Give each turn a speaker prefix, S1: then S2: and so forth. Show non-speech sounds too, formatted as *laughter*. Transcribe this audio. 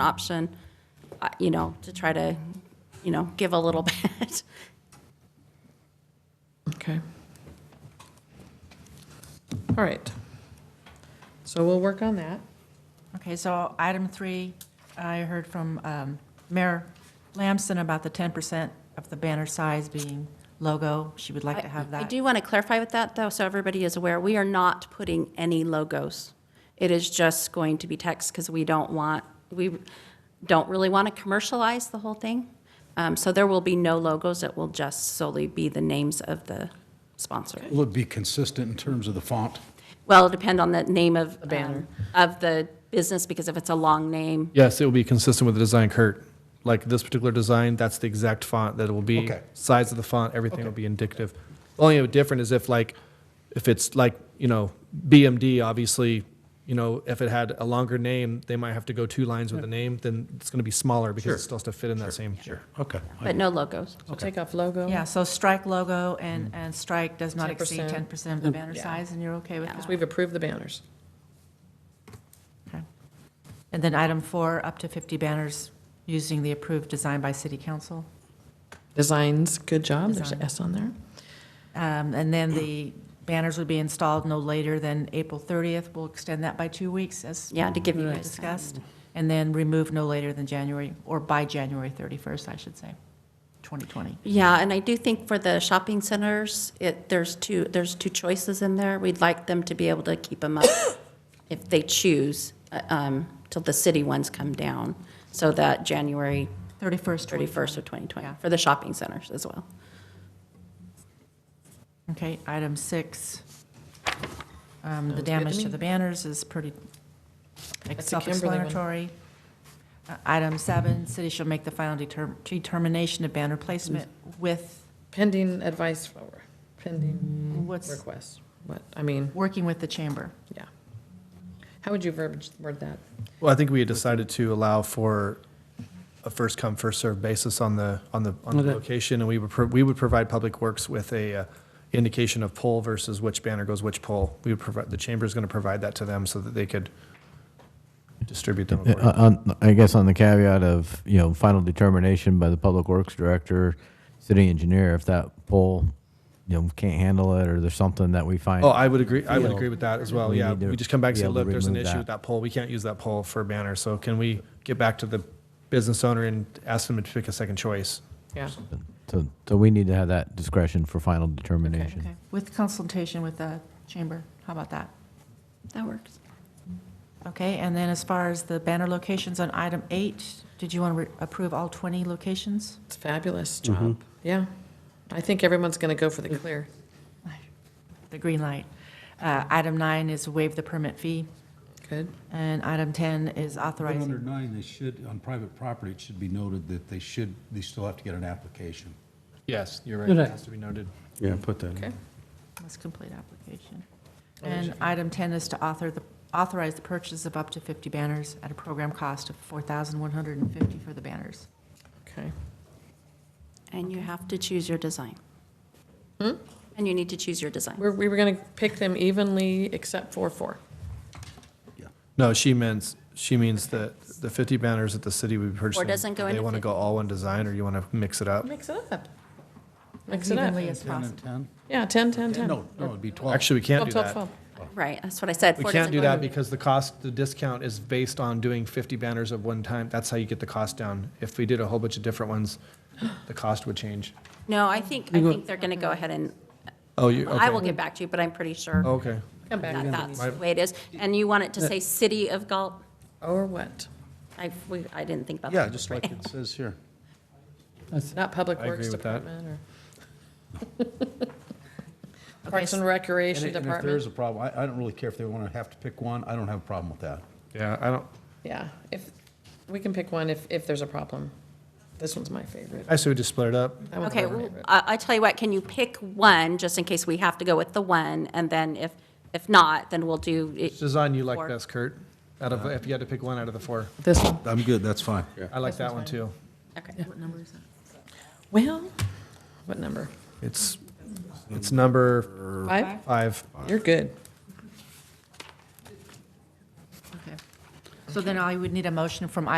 S1: an option, uh, you know, to try to, you know, give a little *laughs* bit.
S2: Okay. All right. So we'll work on that.
S3: Okay, so item three, I heard from um, Mayor Lamson about the 10% of the banner size being logo. She would like to have
S1: I
S3: that.
S1: do want to clarify with that, though, so everybody is aware, we are not putting any logos. It is just going to be text, because we don't want, we don't really want to commercialize the whole thing. Um, So there will be no logos, it will just solely be the names of the sponsor.
S4: Will it be consistent in terms of the font?
S1: Well, it'll depend on the name of. The
S2: banner.
S1: Of the business, because if it's a long name,
S5: Yes, it will be consistent with the design, Kurt. Like this particular design, that's the exact font that it will be.
S4: Okay.
S5: Size of the font, everything will be indicative. Only different is if like, if it's like, you know, BMD, obviously, you know, if it had a longer name, they might have to go two lines with the name, then it's going to be smaller because it still has to fit in that same. Sure.
S4: Okay.
S1: but no logos.
S3: Oh,
S2: So take off logo.
S3: Yeah, so strike logo and, and strike does not exceed
S2: 10%.
S3: 10% of the banner
S2: Yeah.
S3: size, and you're okay with
S1: Yeah.
S3: that?
S2: We've approved the banners.
S3: Okay. And then item four, up to 50 banners using the approved design by city council.
S2: Designs, good job. There's an
S3: Design.
S2: S on there.
S3: Um, And then the banners would be installed no later than April 30th. We'll extend that by two weeks as
S1: Yeah, to give you guys time.
S3: discussed, and then remove no later than January, or by January 31st, I should say, 2020.
S1: Yeah, and I do think for the shopping centers, it, there's two, there's two choices in there. We'd like them to be able to keep them up *coughs* if they choose, uh, um, till the city ones come down, so that January
S3: 31st.
S1: 31st of 2020,
S3: Yeah.
S1: for the shopping centers as well.
S3: Okay, item six. Um, The
S2: good to
S3: damage to
S2: me.
S3: the banners is pretty
S2: the Kimberly one.
S3: self-explanatory. Uh, Item seven, city shall make the final deter- determination of banner placement with,
S2: Pending advice for, pending
S3: what's,
S2: requests. What, I mean,
S3: working with the chamber.
S2: yeah. How would you verbiage word that?
S5: Well, I think we had decided to allow for a first come, first served basis on the, on the, on the location. And we would, pro- we would provide Public Works with a uh, indication of pole versus which banner goes which pole. We would provide, the chamber's going to provide that to them so that they could distribute them.
S6: Yeah,
S5: accordingly.
S6: Uh, on- I guess on the caveat of, you know, final determination by the Public Works Director, city engineer, if that pole, you know, can't handle it or there's something that we find.
S5: Oh, I would agree, I would agree with that as well,
S6: We
S5: yeah.
S6: need to
S5: We just come back and
S6: be
S5: say,
S6: able to
S5: look, there's an
S6: remove
S5: issue
S6: that.
S5: with that pole, we can't use that pole for a banner. So can we get back to the business owner and ask them to pick a second choice?
S2: Yeah.
S6: So, so we need to have that discretion for final determination.
S3: Okay, with consultation with the chamber. How about that?
S1: That works.
S3: Okay, and then as far as the banner locations on item eight, did you want to approve all 20 locations?
S2: It's fabulous
S5: Mm-hmm.
S2: job. Yeah. I think everyone's going to go for the clear.
S3: The green light. Uh, Item nine is waive the permit fee,
S2: Good.
S3: and item 10 is
S4: Under
S3: authorizing.
S4: nine, they should, on private property, it should be noted that they should, they still have to get an application.
S5: Yes, you're right, it has to be noted.
S4: Yeah, put that
S2: Okay.
S3: Must complete application. And item 10 is to author the, authorize the purchase of up to 50 banners at a program cost of 4150 for the banners.
S2: Okay.
S1: And you have to choose your design. And you need to choose your design.
S2: We're, we were going to pick them evenly except for four.
S5: No, she means, she means that the 50 banners at the city we purchased.
S1: doesn't go
S5: They
S1: into
S5: want to
S1: 50.
S5: go all one design, or you want to mix it up?
S2: Mix it up.
S3: As
S2: Mix it up.
S3: evenly as possible.
S4: Ten and
S2: Yeah, 10, 10, 10.
S4: ten? No, no, it'd be twelve.
S5: Actually, we can't
S2: 12,
S5: do
S2: 12,
S5: that.
S2: 12.
S1: Right, that's what I said.
S5: We
S1: Four
S5: can't
S1: doesn't
S5: do
S1: go
S5: that
S1: in-
S5: because the cost, the discount is based on doing 50 banners of one time. That's how you get the cost down. If we did a whole bunch of different ones, the cost would change.
S1: No, I think, I think they're going to go ahead and,
S5: Oh, you,
S1: I will
S5: okay. Oh.
S1: get back to you, but I'm pretty sure
S5: Okay.
S2: Come back.
S1: that
S2: if
S1: that's
S2: we need
S1: the way it is. And you want it to say City of Galt?
S2: to. Or what?
S1: I, we, I didn't think about that.
S4: Yeah, just like it says here.
S2: Not Public
S5: I agree
S2: Works
S5: with that.
S2: Department or? Parks and Recreation
S4: And and if there is
S2: Department?
S4: a problem, I, I don't really care if they want to have to pick one, I don't have a problem with that.
S5: Yeah, I don't,
S2: Yeah, if, we can pick one if, if there's a problem. This one's my favorite.
S5: I say we just split it up.
S2: That one's
S1: Okay,
S2: my
S1: well,
S2: favorite.
S1: I, I tell you what, can you pick one, just in case we have to go with the one? And then if, if not, then we'll do, it-
S5: Design you like
S1: Four.
S5: best, Kurt, out of, if you had to pick one out of the four.
S2: This one.
S4: I'm good, that's fine.
S5: I like that one too.
S1: okay.
S3: What number is that?
S2: Well, what number?
S5: It's, it's number
S2: Five?
S5: five.
S2: You're good.
S3: Okay. So then I would need a motion from item